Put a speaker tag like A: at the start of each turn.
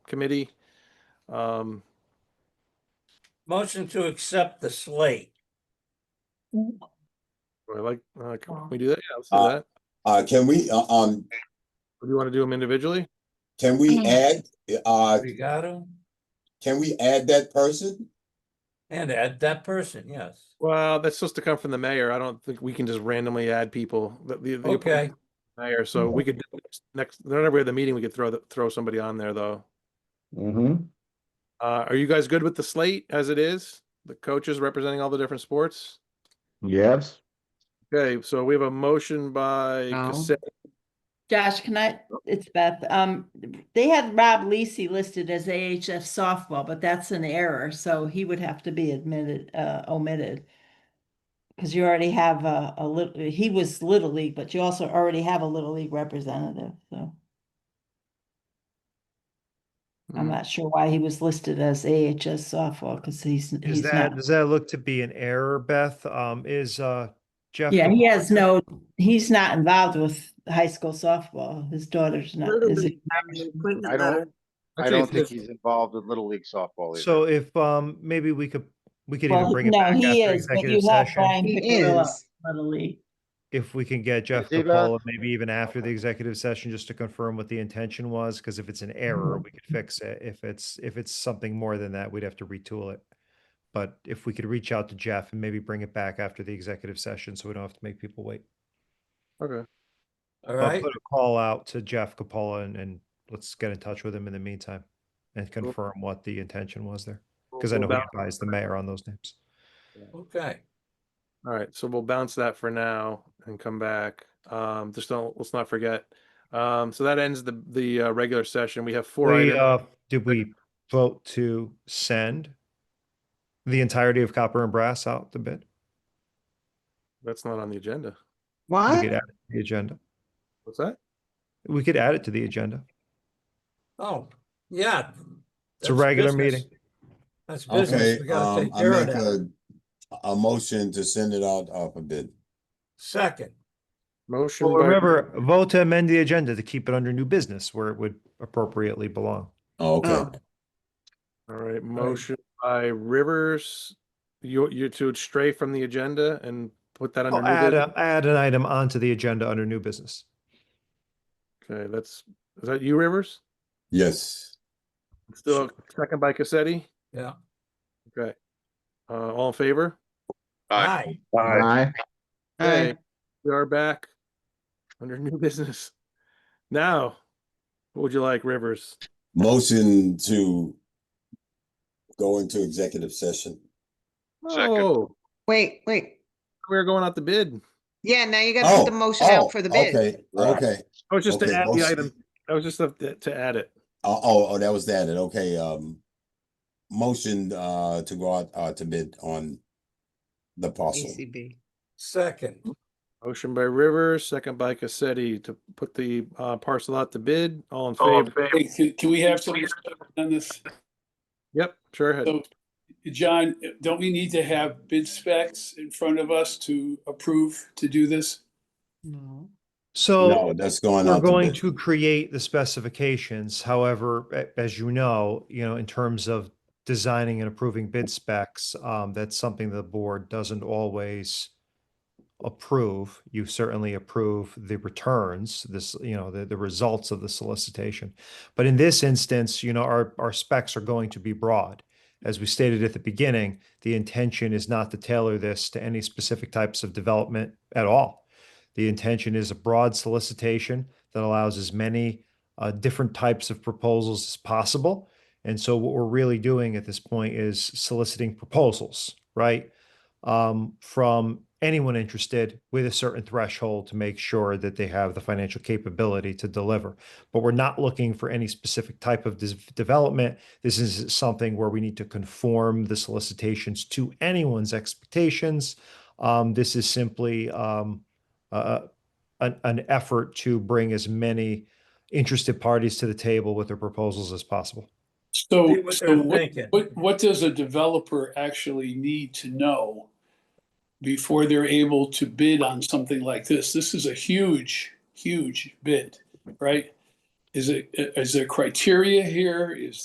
A: Committee. Um,
B: Motion to accept the slate.
A: do I like, uh, can we do that? Yeah, let's do
C: Uh,
A: that.
C: Uh, can we, uh, um,
A: Or Do you want to do them individually?
C: can we
D: Mm-hmm.
E: Mhm.
C: add, uh,
B: Brigado
C: can we add that person?
B: and add that person, yes.
A: Well, that's supposed to come from the mayor. I don't think we can just randomly add people. The- the- the
B: Okay.
A: appointment of the Mayor, so we could, do next- next, whenever we have the meeting, we could throw, the- throw somebody on there, though.
F: Mm-hmm.
A: Uh, are you guys good with the slate as it is? The coaches representing all the different sports?
F: Yes.
A: Okay, so we have a motion by
G: No.
A: Cassetti.
E: Josh, can I, it's Beth, um, they had Rob Lisi listed as AHF softball, but that's an error, so he would have to be admitted, uh, omitted. Cause you already have a, a little, he was Little League, but you also already have a Little League representative, so I'm
H: Hmm.
A: Mm.
E: not sure why he was listed as AHS softball, cause he's,
H: Is
E: he's
H: that,
E: not.
H: does that look to be an error, Beth? Um, is, uh, Jeff?
E: Yeah, he
H: DeMar-
E: has no, he's not involved with high school softball, his daughter's not,
D: Little
E: is
D: League
E: it?
D: Academy appointment
I: I don't-
D: letter.
I: I
A: Actually,
I: don't think
A: it's-
I: he's involved in Little League softball either.
H: So if, um, maybe we could, we could even
E: Well,
H: bring it
E: no,
H: back
E: he
H: after
E: is, but
H: executive
E: you have
H: session.
E: Brian
D: He
E: Piccarello,
D: is.
E: Little League.
H: If we can get Jeff
I: Ziva?
H: Capola, maybe even after the executive session, just to confirm what the intention was, because if it's an error, we
E: Mm-hmm.
H: could fix it. If it's, if it's something more than that, we'd have to retool it. But if we could reach out to Jeff and maybe bring it back after the executive session, so we don't have to make people wait.
A: Okay,
B: All
H: I'll
B: right,
H: Put a call out to Jeff Capola and, and let's get in touch with him in the meantime and confirm what the intention was there. Because I
A: We'll
H: know he
A: bounce-
H: advised the mayor on those names.
B: okay.
A: All right, so we'll bounce that for now and come back. Um, just don't, let's not forget. Um, so that ends the, the, uh, regular session. We have four
H: We,
A: items.
H: uh, did we vote to send the entirety of copper and brass out the bid?
A: That's not on the agenda.
H: We
D: What?
H: could add it to The agenda.
A: What's that?
H: We could add it to the agenda.
B: Oh, yeah.
H: It's a
B: that's
H: regular
B: business.
H: meeting.
B: That's business.
C: Okay,
B: We gotta
C: um,
B: take
C: I
B: care of
C: make
B: that.
C: a, a motion to send it out off a bid.
B: Second,
A: Motion.
H: Well,
A: by-
H: remember, vote to amend the agenda to keep it under new business where it would appropriately belong.
C: Oh, Okay,
D: Oh,
A: All right, motion by Rivers. You, you to stray from the agenda and put that under.
H: Well,
A: new
H: Add,
A: business?
H: a- add an item onto the agenda under new business.
A: Okay, that's, is that you, Rivers?
C: yes.
A: Still, second by Cassetti?
B: Yeah.
A: Okay. Uh, all in favor?
B: aye.
F: Aye.
A: Okay, We are back under new business. Now, what would you like, Rivers?
C: Motion to go into executive session.
I: Second.
A: Oh,
D: Wait, wait.
A: we're going out the bid.
D: Yeah, now you gotta
C: Oh,
D: put the motion
C: oh,
D: out for the bid.
C: okay, okay.
A: I was just to
C: Okay,
A: add the
C: motion.
A: item. I was just to to add it.
C: Oh, oh, oh, that was that, and okay, um, motion, uh, to go out, uh, to bid on the parcel.
D: ACB.
B: Second,
A: Motion by Rivers, second by Cassetti to put the uh, parcel out to bid. All in favor?
J: Hey, can, can we have some discussion on this?
A: Yep, sure. ahead.
J: So, John, don't we need to have bid specs in front of us to approve to do this?
D: No.
H: So
C: No, that's going
H: we're
C: out.
H: going
C: bid.
H: to create the specifications. However, a- as you know, you know, in terms of designing and approving bid specs, um, that's something the board doesn't always approve. You certainly approve the returns, this, you know, the, the results of the solicitation. But in this instance, you know, our, our specs are going to be broad. As we stated at the beginning, the intention is not to tailor this to any specific types of development at all. The intention is a broad solicitation that allows as many uh, different types of proposals as possible. And so what we're really doing at this point is soliciting proposals, right? Um, from anyone interested with a certain threshold to make sure that they have the financial capability to deliver. But we're not looking for any specific type of dis- development. This is something where we need to conform the solicitations to anyone's expectations. Um, this is simply um, uh, an, an effort to bring as many interested parties to the table with their proposals as possible.
B: see
J: So,
B: what
J: so
B: they're
J: what,
B: thinking.
J: what, what does a developer actually need to know before they're able to bid on something like this? This is a huge, huge bid, right? Is it, is there criteria here? Is